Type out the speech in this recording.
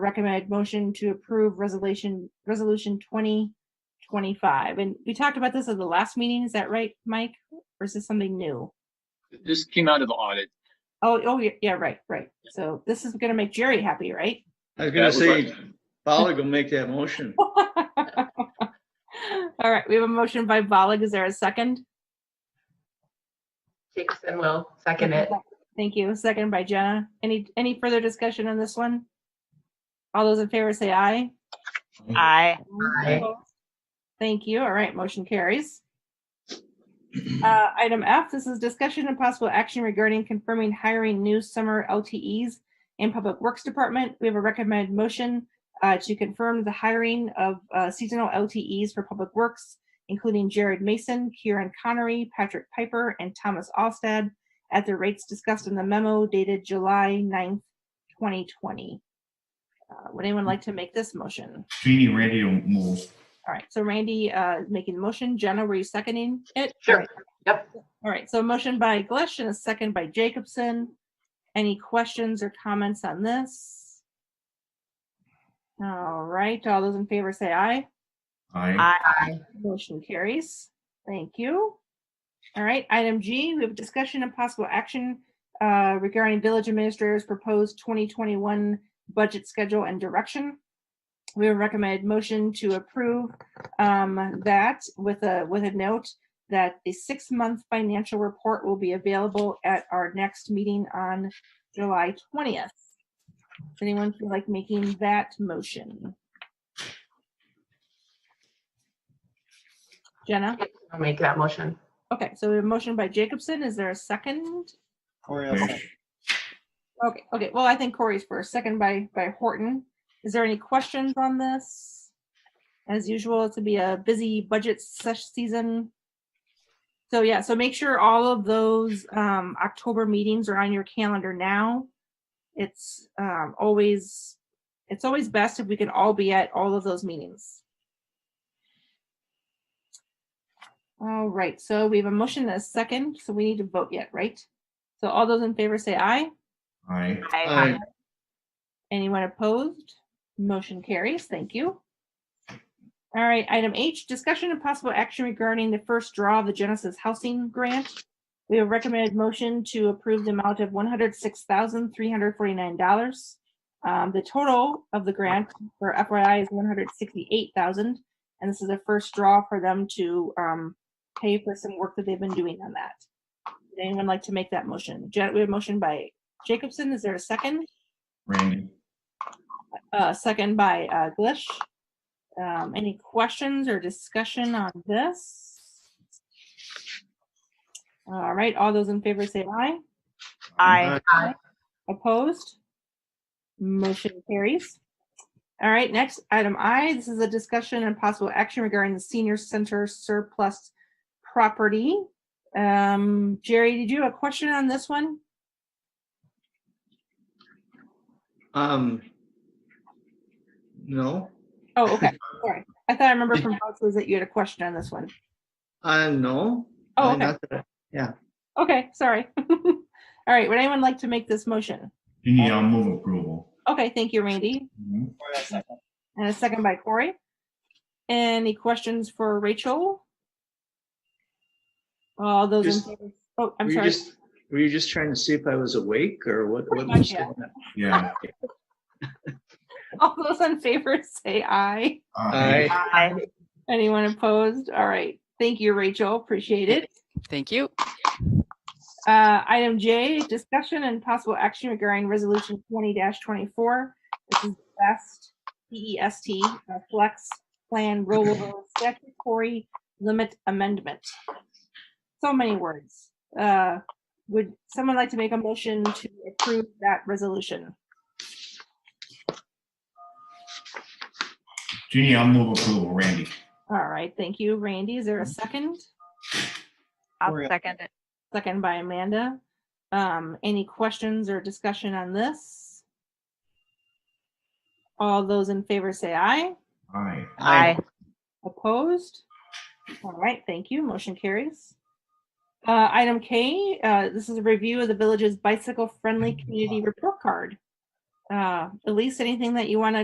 recommended motion to approve resolution, resolution twenty twenty-five. And we talked about this at the last meeting. Is that right, Mike? Or is this something new? This came out of the audit. Oh, oh, yeah, yeah, right, right. So this is gonna make Jerry happy, right? I was That gonna was say, like- Polly will make that motion. All right, we have a motion by Bollig. Is there a second? Jacobson will second it. Thank you. Second by Jenna. Any, any further discussion on this one? All those in favor say aye. Aye. Aye. Thank you. All right, motion carries. Uh, Item F, this is discussion and possible action regarding confirming hiring new summer LTEs in Public Works Department. We have a recommended motion uh, to confirm the hiring of uh, seasonal LTEs for Public Works, including Jared Mason, Kieran Connery, Patrick Piper, and Thomas Alstad at the rates discussed in the memo dated July 9th, 2020. Uh, Would anyone like to make this motion? Jeannie Randy will move. All right, so Randy uh, is making the motion. Jenna, were you seconding it? Sure. All right. Yep. All right, so a motion by Glish and a second by Jacobson. Any questions or comments on this? All right, all those in favor say aye. Aye. Aye. Aye. Motion carries. Thank you. All right, item G, we have discussion and possible action uh, regarding village administrators' proposed 2021 budget schedule and direction. We have recommended motion to approve um, that with a, with a note that the six-month financial report will be available at our next meeting on July 20th. Does anyone feel like making that motion? Jenna? I'll make that motion. Okay, so we have a motion by Jacobson. Is there a second? Wish. Okay, okay, well, I think Corey's first, second by, by Horton. Is there any questions on this? As usual, it's gonna be a busy budget sesh season. So yeah, so make sure all of those, um, October meetings are on your calendar now. It's, um, always, it's always best if we can all be at all of those meetings. All right, so we have a motion and a second, so we need to vote yet, right? So all those in favor say aye. Aye. Aye. Aye. Anyone opposed? Motion carries. Thank you. All right, item H, discussion and possible action regarding the first draw of the Genesis Housing Grant. We have recommended motion to approve the amount of one hundred six thousand three hundred forty-nine dollars. Um, the total of the grant for FYI is one hundred sixty-eight thousand, and this is a first draw for them to um, pay for some work that they've been doing on that. Would Anyone like to make that motion? Jen, we have a motion by Jacobson. Is there a second? Randy. Uh, second by, uh, Glish. Um, any questions or discussion on this? All right, all those in favor say aye. Aye. Opposed? Motion carries. All right, next, item I, this is a discussion and possible action regarding the senior center surplus property. Um, Jerry, did you have a question on this one? Um. No, Oh, okay, sorry. I thought I remember from Fox's that you had a question on this one. I no. Oh, I okay. not that- Okay, sorry. All right, would anyone like to make this motion? Jeannie, I'll move approval. Okay, thank you, Randy. Mhm. And a second by Corey. Any questions for Rachel? All those in Just- favor, oh, Were I'm you sorry. just, were you just trying to see if I was awake or what? Pretty what much, was yeah. going on? Yeah. All those in favor say aye. Aye. Aye. Aye. Anyone opposed? All right, thank you, Rachel, appreciate it. Thank you. Uh, item J, discussion and possible action regarding resolution twenty twenty-four. This is best BEST uh, flex plan rollover statutory limit amendment. So many words. Uh, would someone like to make a motion to approve that resolution? Jeannie, I'll move approval. Randy. All right, thank you, Randy. Is there a second? I'll second it. Second by Amanda. Um, any questions or discussion on this? All those in favor say aye. Aye. Aye. Opposed? All right, thank you. Motion carries. Uh, Item K, uh, this is a review of the village's bicycle-friendly community report card. Uh, Uh, Elise, anything that you want to